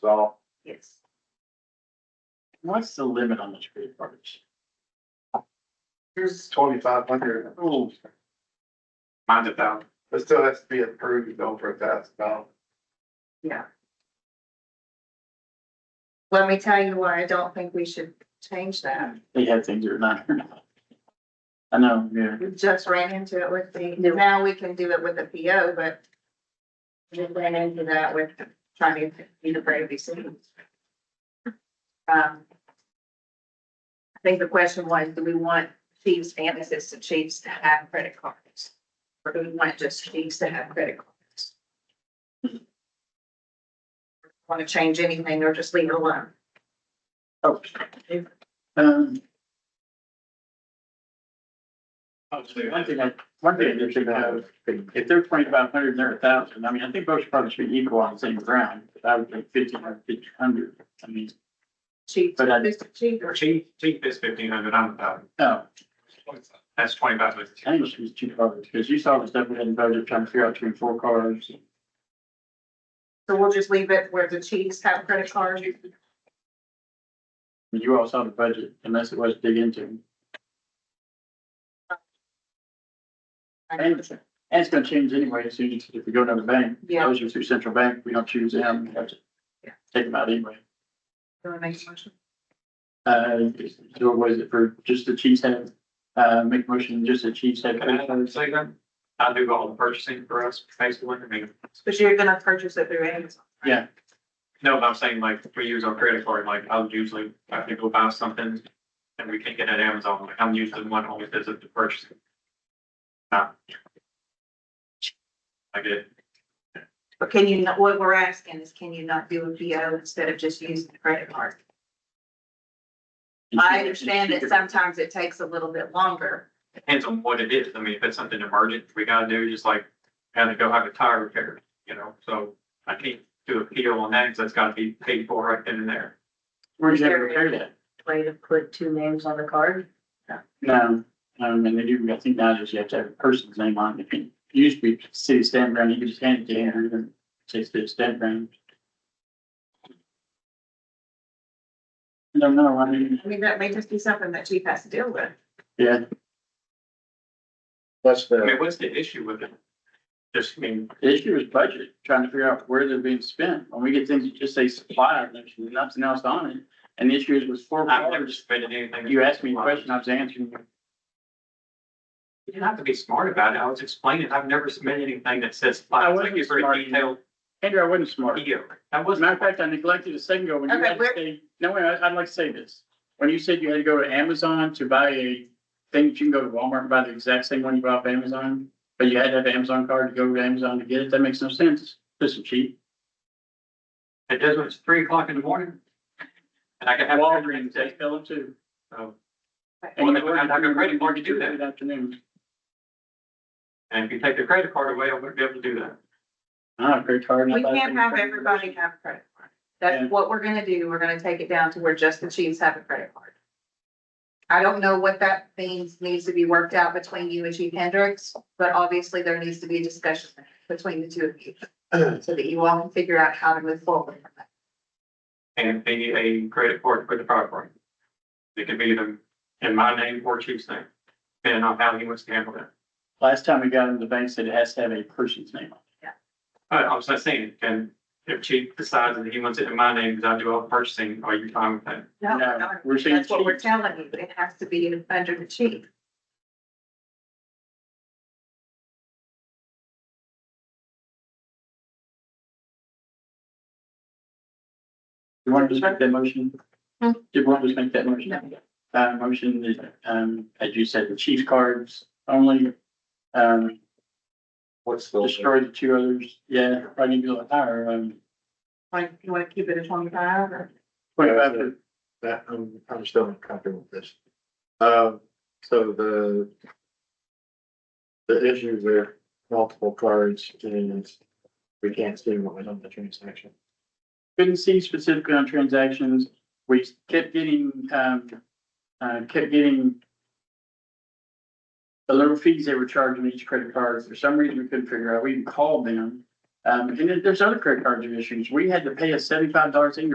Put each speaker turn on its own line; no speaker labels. So
Yes.
What's the limit on the tree frontage?
here's twenty-five hundred,
Oh,
Mind it down.
it still has to be approved over a thousand dollars.
Yeah. Let me tell you why I don't think we should change that.
they had things that are not. I know, yeah.
We just ran into it with the, now we can do it with a PO, but we ran into that with trying to be the Brady City. Um, I think the question was, do we want chiefs and assistant chiefs to have credit cards? Or do we want just chiefs to have credit cards? Want to change anything or just leave it alone?
Oh. Um,
Obviously,
one thing I, one thing I did think of, if they're twenty-five hundred and they're a thousand, I mean, I think both should probably should be equal on the same ground, but I would think fifteen hundred, fifteen hundred, I mean,
Chief,
But I-
assistant chief or
Chief, chief is fifteen hundred, I'm about,
no,
that's twenty-five with
I think it should be two cars, because you saw the stuff we had in budget trying to figure out between four cars.
So we'll just leave it where the chiefs have credit cards.
I mean, You all saw the budget, unless it was dig into. And it's- and it's gonna change anyway, as soon as, if we go down the bank,
Yeah.
those are through central bank, we don't choose them, we have to
Yeah.
take them out anyway.
Do I make a motion?
Uh, so what is it for, just the chiefs have, uh, make motion, just the chiefs have. credit cards?
Second, I do all the purchasing for us, basically, I mean,
But you're gonna purchase it through Amazon. right?
Yeah,
no, but I'm saying like, we use our credit card, like, I would usually, I have to go buy something and we can't get it at Amazon, like, I'm usually the one who always does it the purchasing. Uh, I get, it.
But can you, not- what we're asking is can you not do a PO instead of just using the credit card? I understand that sometimes it takes a little bit longer.
depends on what it is, I mean, if it's something emergent, we gotta do, just like, had to go have a tire repaired, you know, so I can't do a PO on that, because that's gotta be paid for right then and there.
Where'd you ever repair that?
Way to put two names on the card?
No, um, and they do, I think now just you have to have a person's name on it. It used to be city stamp ground, you could just hand it to him, and say city stamp ground. I don't know, I mean,
I mean, that may just be something that chief has to deal with.
yeah,
That's
I
the,
mean, what's the issue with it? Just, I mean,
the issue is budget, trying to figure out where they're being spent. When we get things that just say supplier, and there's nothing else on it, and the issue is with four
I've never
cars.
spent anything.
You asked me a question, I was answering.
You didn't have to be smart about it. I was explaining, I've never submitted anything that says.
I
Thank
wasn't
you for
smart.
a detailed
Andrew, I wasn't smart.
video.
As
That
a matter
wasn't.
of fact, I neglected a second ago when you
Okay,
had to
where-
say, no, wait, I- I'd like to say this. When you said you had to go to Amazon to buy a thing, that you can go to Walmart and buy the exact same one you bought off Amazon, but you had to have an Amazon card to go to Amazon to get it, that makes no sense. This is cheap.
It does when it's three o'clock in the morning. And I can have.
Walgreens, they sell them too.
So,
And
Oh. Well,
you
then we have to have a credit card to do that.
Good Afternoon.
And if you take the credit card away, I wouldn't be able to do that.
Ah, credit card. and I
We
thought-
can't have everybody have a credit card. That's
Yeah.
what we're gonna do. We're gonna take it down to where just the chiefs have a credit card. I don't know what that means, needs to be worked out between you and Chief Hendricks, but obviously there needs to be a discussion between the two of you. So that you all can figure out how to move forward. from that.
And be a credit card for the property. It could be either in my name or chief's name, depending on how he wants to handle that.
Last time we got into the bank said it has to have a person's name on it.
I I was just saying, and if chief decides that he wants it in my name, because I do all the purchasing, are you fine with that?
No,
No,
no,
we're saying
that's what we're
chiefs.
telling you. It has to be under the chief.
You want to just make that motion?
Hmm.
You want to just make that motion? uh, motion that, um, as you said, the chief cards only, um,
what's the,
destroy the two others. Yeah, probably need to go higher, um,
Like, you wanna keep it at twenty-five or?
twenty-five to
that, I'm, I'm still uncomfortable with this. Um, so the. The issues are multiple cards and we can't see what was on the transaction.
couldn't see specifically on transactions. We kept getting, um, uh, kept getting the little fees they were charging each credit card. For some reason, we couldn't figure out. We even called them Um, and then there's other credit card issues. We had to pay a seventy-five dollars in